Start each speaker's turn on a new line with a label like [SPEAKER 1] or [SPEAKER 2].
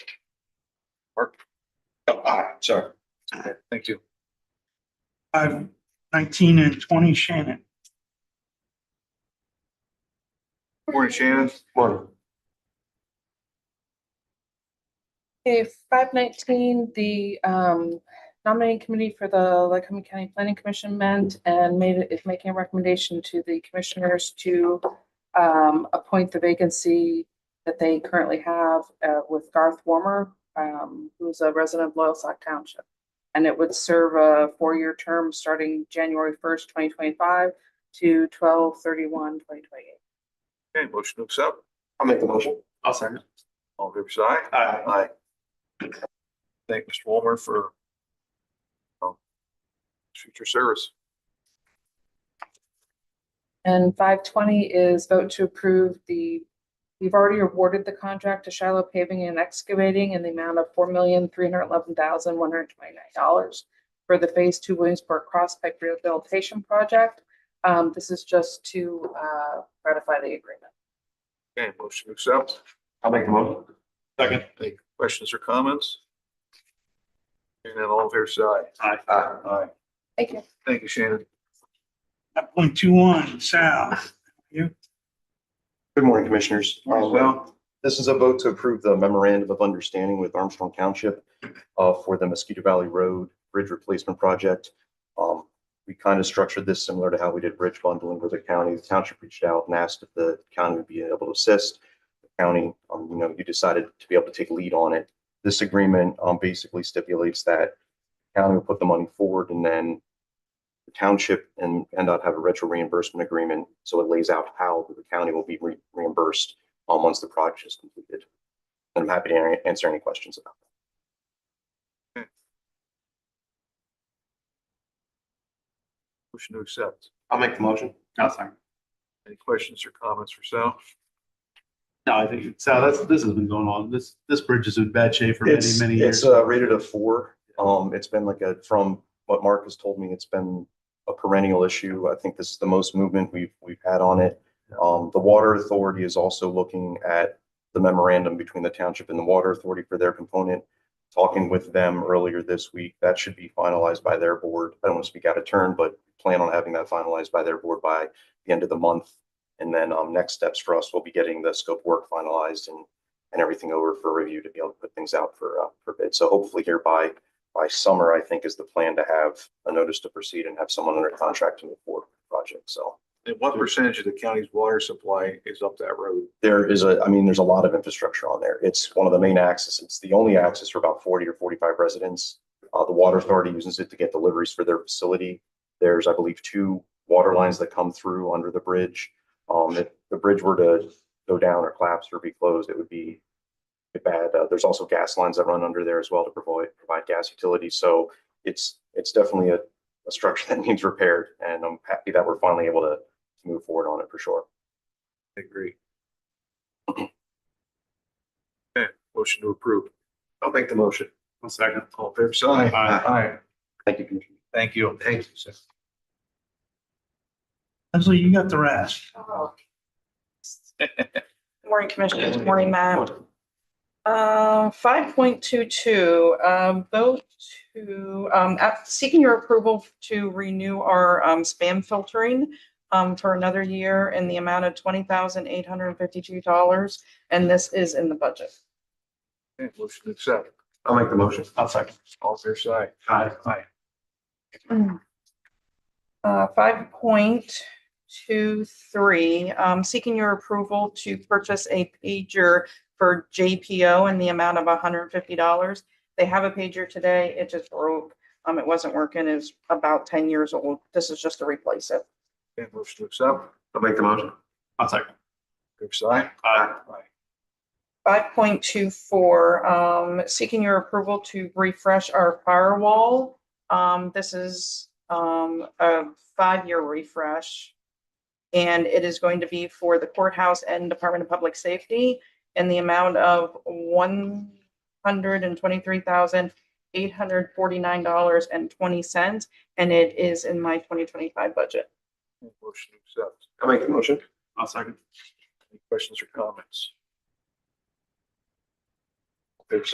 [SPEAKER 1] Mark? Oh, aye, sorry.
[SPEAKER 2] Aye.
[SPEAKER 1] Thank you.
[SPEAKER 2] Five, nineteen and twenty Shannon.
[SPEAKER 1] Morning, Shannon. Morning.
[SPEAKER 3] Okay, five nineteen, the um, nominating committee for the Lycoming County Planning Commission met and made, is making a recommendation to the commissioners to um, appoint the vacancy that they currently have uh, with Garth Warmer, um, who's a resident of Loyalsock Township. And it would serve a four-year term starting January first, twenty twenty-five to 2028.
[SPEAKER 4] Okay, motion to accept.
[SPEAKER 1] I'll make the motion.
[SPEAKER 2] I'll second.
[SPEAKER 4] All in favor, say aye.
[SPEAKER 1] Aye.
[SPEAKER 4] Aye. Thank Mr. Walmer for um, his future service.
[SPEAKER 3] And five twenty is vote to approve the, we've already awarded the contract to Shiloh Paving and Excavating in the amount of four million, three hundred eleven thousand, one hundred twenty-nine dollars for the Phase Two Williamsburg Prospect Rehabilitation Project. Um, this is just to, uh, ratify the agreement.
[SPEAKER 4] Okay, motion to accept.
[SPEAKER 1] I'll make the motion. Second.
[SPEAKER 4] Any questions or comments? And then all in favor, say aye.
[SPEAKER 1] Aye. Aye.
[SPEAKER 4] Aye.
[SPEAKER 3] Thank you.
[SPEAKER 4] Thank you, Shannon.
[SPEAKER 2] Nine point two one Sal.
[SPEAKER 5] Good morning, Commissioners.
[SPEAKER 2] Morning, Sal.
[SPEAKER 5] This is a vote to approve the memorandum of understanding with Armstrong Township uh, for the Mosquito Valley Road Bridge Replacement Project. Um, We kind of structured this similar to how we did bridge bundling with the county. The township reached out and asked if the county would be able to assist. The County, um, you know, you decided to be able to take lead on it. This agreement um, basically stipulates that county will put the money forward and then the township and NDOT have a retro reimbursement agreement, so it lays out how the county will be re- reimbursed um, once the project is completed. And I'm happy to an- answer any questions about that.
[SPEAKER 4] Motion to accept.
[SPEAKER 1] I'll make the motion.
[SPEAKER 6] Oh,
[SPEAKER 1] I'll second.
[SPEAKER 4] Any questions or comments for Sal?
[SPEAKER 6] No, I think, so that's, this has been going on. This, this bridge is in bad shape for many,
[SPEAKER 5] It's-
[SPEAKER 6] many years.
[SPEAKER 5] It's uh, rated a four. Um, It's been like a, from what Mark has told me, it's been a perennial issue. I think this is the most movement we've, we've had on it. Um, The Water Authority is also looking at the memorandum between the township and the Water Authority for their component. Talking with them earlier this week, that should be finalized by their board. I don't want to speak out of turn, but plan on having that finalized by their board by the end of the month. And then um, next steps for us will be getting the scope work finalized and and everything over for review to be able to put things out for, uh, for bid. So hopefully here by, by summer, I think is the plan to have a notice to proceed and have someone under contract to move forward with the project. So
[SPEAKER 4] And what percentage of the county's water supply is up that road?
[SPEAKER 5] there is a, I mean, there's a lot of infrastructure on there. It's one of the main axes. It's the only axis for about forty or forty-five residents. Uh, the water authority uses it to get deliveries for their facility. There's, I believe, two water lines that come through under the bridge. Um, if the bridge were to go down or collapse or be closed, it would be bad. Uh, there's also gas lines that run under there as well to provide, provide gas utility. So it's, it's definitely a, a structure that needs repaired and I'm happy that we're finally able to move forward on it for sure.
[SPEAKER 4] I agree. Okay, motion to approve. I'll make the motion.
[SPEAKER 6] One second.
[SPEAKER 4] All in favor, say aye.
[SPEAKER 6] Aye.
[SPEAKER 4] Aye.
[SPEAKER 5] Thank you, Commissioner.
[SPEAKER 4] Thank you. Thank you. sir.
[SPEAKER 2] Leslie, you got the rest.
[SPEAKER 3] Morning, Commissioners. Morning, Matt. Um, five point two two, um, vote to, um, at- seeking your approval to renew our, um, spam filtering um, for another year in the amount of twenty thousand eight hundred and fifty-two dollars, and this is in the budget.
[SPEAKER 4] Okay, motion to accept.
[SPEAKER 1] I'll make the motion.
[SPEAKER 6] I'll second.
[SPEAKER 4] All fair side.
[SPEAKER 6] Aye. Aye.
[SPEAKER 3] Uh, five point two three, um, seeking your approval to purchase a pager for JPO in the amount of hundred and fifty dollars. They have a pager today. It just broke. Um, it wasn't working. It's about ten years old. This is just to replace it.
[SPEAKER 4] Okay, motion to accept.
[SPEAKER 1] I'll make the motion.
[SPEAKER 6] I'll second.
[SPEAKER 4] Fair side.
[SPEAKER 6] Aye.
[SPEAKER 3] Five point two four, um, seeking your approval to refresh our firewall. Um, this is, um, a five-year refresh. And it is going to be for the courthouse and Department of Public Safety in the amount of one hundred and twenty-three thousand, eight hundred forty-nine dollars and twenty cents. And it is in my twenty twenty-five budget.
[SPEAKER 4] Motion to accept.
[SPEAKER 1] I'll make the motion.
[SPEAKER 6] I'll second.
[SPEAKER 4] Any questions or comments?